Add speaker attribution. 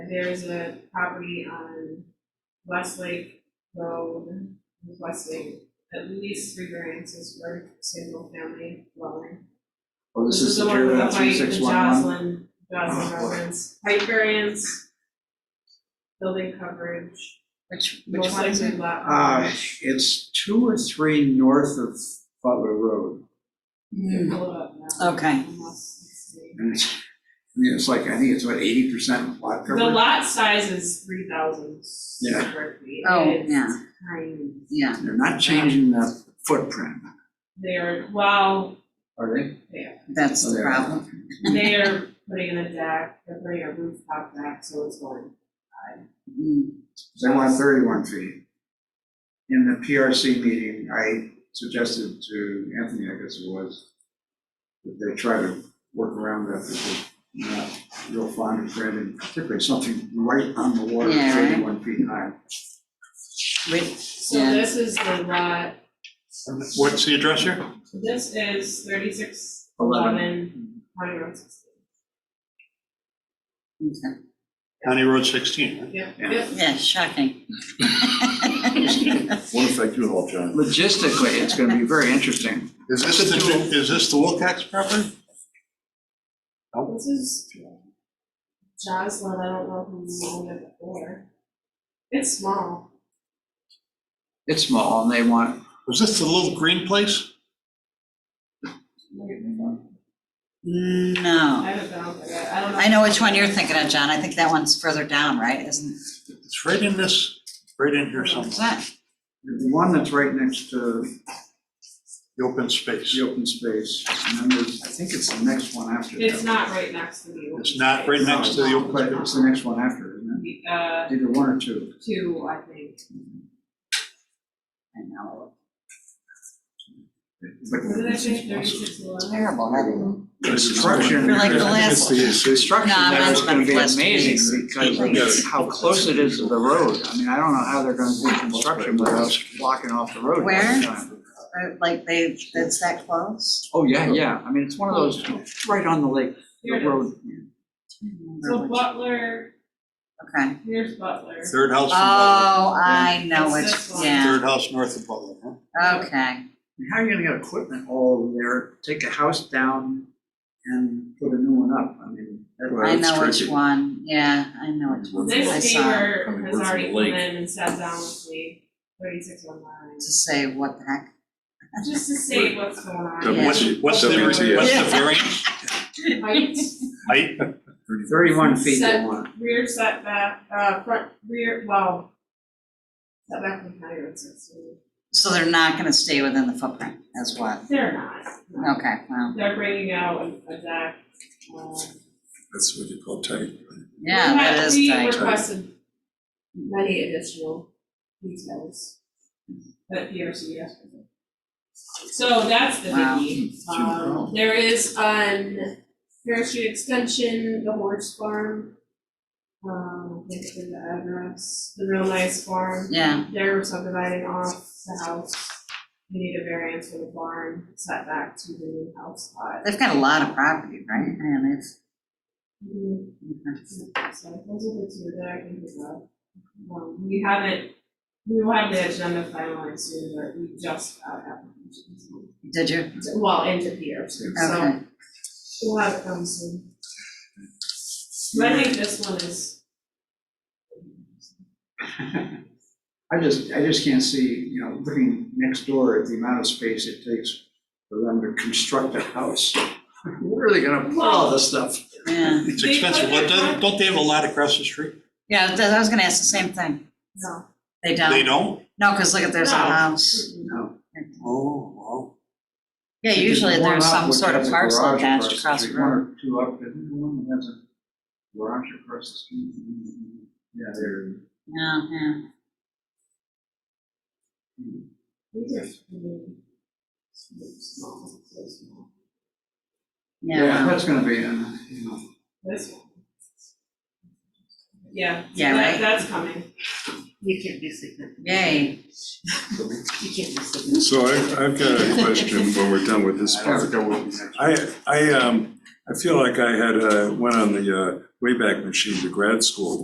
Speaker 1: there's a property on Westlake Road, Westlake, at least three variances for single family dwelling.
Speaker 2: Oh, this is the
Speaker 1: one with
Speaker 2: Deer
Speaker 1: height,
Speaker 2: three six one
Speaker 1: The
Speaker 2: one?
Speaker 1: Joslin, Joslin
Speaker 2: Oh, boy.
Speaker 1: residence, height variance, building coverage,
Speaker 3: Which, which
Speaker 1: most
Speaker 3: one is
Speaker 1: likely
Speaker 3: it?
Speaker 1: lot
Speaker 2: Uh,
Speaker 1: coverage.
Speaker 2: it's two or three north of Butler Road.
Speaker 3: Hmm,
Speaker 1: Pull it up now.
Speaker 3: Okay.
Speaker 1: Unless it's the-
Speaker 2: And it's, I mean, it's like, I think it's what, eighty percent lot
Speaker 1: The
Speaker 2: coverage?
Speaker 1: lot size is three thousand
Speaker 2: Yeah.
Speaker 1: square feet.
Speaker 3: Oh,
Speaker 1: It's
Speaker 3: yeah.
Speaker 1: tiny.
Speaker 3: Yeah,
Speaker 2: They're not changing the footprint,
Speaker 1: They're, well,
Speaker 2: are they?
Speaker 3: that's the
Speaker 2: There.
Speaker 3: problem.
Speaker 1: they're putting in a deck, they're putting a rooftop deck, so it's going.
Speaker 3: Mm,
Speaker 2: They want thirty-one feet. In the PRC meeting, I suggested to Anthony, I guess it was, that they try to work around that, because they're not real fond of granting, particularly something right on the water,
Speaker 3: Yeah, right.
Speaker 2: thirty-one feet high.
Speaker 3: Which,
Speaker 1: So
Speaker 3: Yeah.
Speaker 1: this is the lot,
Speaker 4: What's the address here?
Speaker 1: this is thirty-six
Speaker 2: Eleven.
Speaker 1: eleven County Road sixteen.
Speaker 3: okay.
Speaker 4: County Road 16, right?
Speaker 1: Yep,
Speaker 2: Yeah.
Speaker 1: yep,
Speaker 3: yeah, shocking.
Speaker 5: What if I do it all, John?
Speaker 2: Logistically, it's gonna be very interesting.
Speaker 4: Is this the, two- is this the Wilcox property?
Speaker 3: Oh.
Speaker 1: this is Joslin, I don't know who owned it before. It's small,
Speaker 2: It's small and they want,
Speaker 4: Was this the little green place?
Speaker 1: Look at my phone. I
Speaker 3: No,
Speaker 1: haven't found it yet, I don't know.
Speaker 3: I know which one you're thinking of, John, I think that one's further down, right, isn't it?
Speaker 4: It's right in this, right in here
Speaker 3: Is
Speaker 4: somewhere,
Speaker 3: that?
Speaker 2: the one that's right next to
Speaker 4: the open space.
Speaker 2: the open space, and then there's, I think it's the next one after that.
Speaker 1: It's not right next to the.
Speaker 4: It's not right next to the open
Speaker 2: But it's the next one after, isn't
Speaker 1: Uh,
Speaker 2: it? Either one or two.
Speaker 1: two, I think.
Speaker 3: I know,
Speaker 2: It's like-
Speaker 1: What did I say, thirty-six eleven?
Speaker 3: terrible, that-
Speaker 2: Construction.
Speaker 3: For like the last-
Speaker 2: Construction
Speaker 3: Nah,
Speaker 2: there
Speaker 3: mine's
Speaker 2: is gonna
Speaker 3: been
Speaker 2: be
Speaker 3: less
Speaker 2: amazing because of how close it is to the road. I mean, I don't know how they're gonna do construction without blocking off the road. half the time.
Speaker 3: Uh, like they, that's that close?
Speaker 2: Oh, yeah, yeah. I mean, it's one of those, right on the lake, the
Speaker 1: Here it is.
Speaker 2: road.
Speaker 1: So Butler,
Speaker 3: Okay,
Speaker 1: here's Butler.
Speaker 4: Third house from Butler,
Speaker 3: oh, I know
Speaker 1: It's
Speaker 3: which,
Speaker 1: this one.
Speaker 3: Oh, yeah,
Speaker 4: third house north of Butler, huh?
Speaker 3: okay,
Speaker 2: How are you gonna get equipment all over there, take a house down and put a new one up? I mean, that-
Speaker 3: I
Speaker 5: That's
Speaker 3: know which
Speaker 5: tricky.
Speaker 3: one, yeah, I know which one, I
Speaker 1: This
Speaker 3: saw, it
Speaker 1: neighbor
Speaker 5: Coming
Speaker 1: has
Speaker 5: towards
Speaker 1: already
Speaker 5: the
Speaker 1: come
Speaker 5: lake.
Speaker 1: in and sat down with me, thirty-six one nine,
Speaker 3: to say what the heck.
Speaker 1: just to say what's going on.
Speaker 3: Yeah.
Speaker 4: What's, what's the, what's
Speaker 1: WTF.
Speaker 4: the variance?
Speaker 1: Height,
Speaker 4: Height?
Speaker 2: Thirty-one feet they
Speaker 1: Set-
Speaker 2: want.
Speaker 1: rear setback, uh, front, rear, well, setback from County Road sixteen,
Speaker 3: So they're not gonna stay within the footprint as what?
Speaker 1: they're not, no.
Speaker 3: Okay, well,
Speaker 1: they're bringing out a a deck, uh,
Speaker 5: That's what you call tight.
Speaker 3: yeah, that is
Speaker 1: We had-
Speaker 3: tight.
Speaker 1: We requested many additional details that PRC asked for. So that's the
Speaker 3: Wow.
Speaker 1: biggie.
Speaker 5: Wow.
Speaker 1: Um, there is on Fair Street Extension, the horse farm. Um, I think the address, the real nice farm.
Speaker 3: Yeah,
Speaker 1: They're subdividing off the house. You need a variance for the barn set back to the new house lot.
Speaker 3: they've got a lot of property, right, and it's,
Speaker 1: Mm, So those are the two that I can think of. Um, we haven't, we will have the agenda finalized soon, but we just got applications.
Speaker 3: did you?
Speaker 1: Well, into here, so
Speaker 3: Okay,
Speaker 1: we'll have it come soon. But I think this one is.
Speaker 2: I just, I just can't see, you know, looking next door at the amount of space it takes for them to construct a house. Where are they gonna put all this stuff?
Speaker 3: yeah,
Speaker 4: It's
Speaker 1: They put
Speaker 4: expensive,
Speaker 1: their
Speaker 4: What don't,
Speaker 1: front-
Speaker 4: don't they have a lot across the street?
Speaker 3: yeah, I was- I was gonna ask the same thing,
Speaker 1: No.
Speaker 3: they
Speaker 4: They
Speaker 3: don't,
Speaker 4: don't?
Speaker 3: no, cause look at, there's a
Speaker 1: No.
Speaker 3: house.
Speaker 1: mm-mm.
Speaker 2: No,
Speaker 4: Oh, wow.
Speaker 3: Yeah, usually
Speaker 2: One
Speaker 3: there's
Speaker 2: up
Speaker 3: some
Speaker 2: which
Speaker 3: sort
Speaker 2: has
Speaker 3: of
Speaker 2: a
Speaker 3: parcel
Speaker 2: garage
Speaker 3: attached
Speaker 2: the
Speaker 3: across the
Speaker 2: street,
Speaker 3: road.
Speaker 2: one or Two up, isn't there one that has a garage across the street? Yeah, they're,
Speaker 3: Yeah, yeah,
Speaker 1: These are pretty small, so small.
Speaker 2: yeah,
Speaker 3: yeah, well,
Speaker 2: that's gonna be, uh, you know,
Speaker 1: This one. Yeah. so
Speaker 3: Yeah,
Speaker 1: that-
Speaker 3: right.
Speaker 1: That's coming.
Speaker 6: You can't do secret,
Speaker 3: yay,
Speaker 6: you can't do secret.
Speaker 5: So I, I've got a question when we're done with this
Speaker 2: I don't
Speaker 5: part.
Speaker 2: know what the next-
Speaker 5: I, I, um, I feel like I had, uh, went on the, uh, Wayback Machine to grad school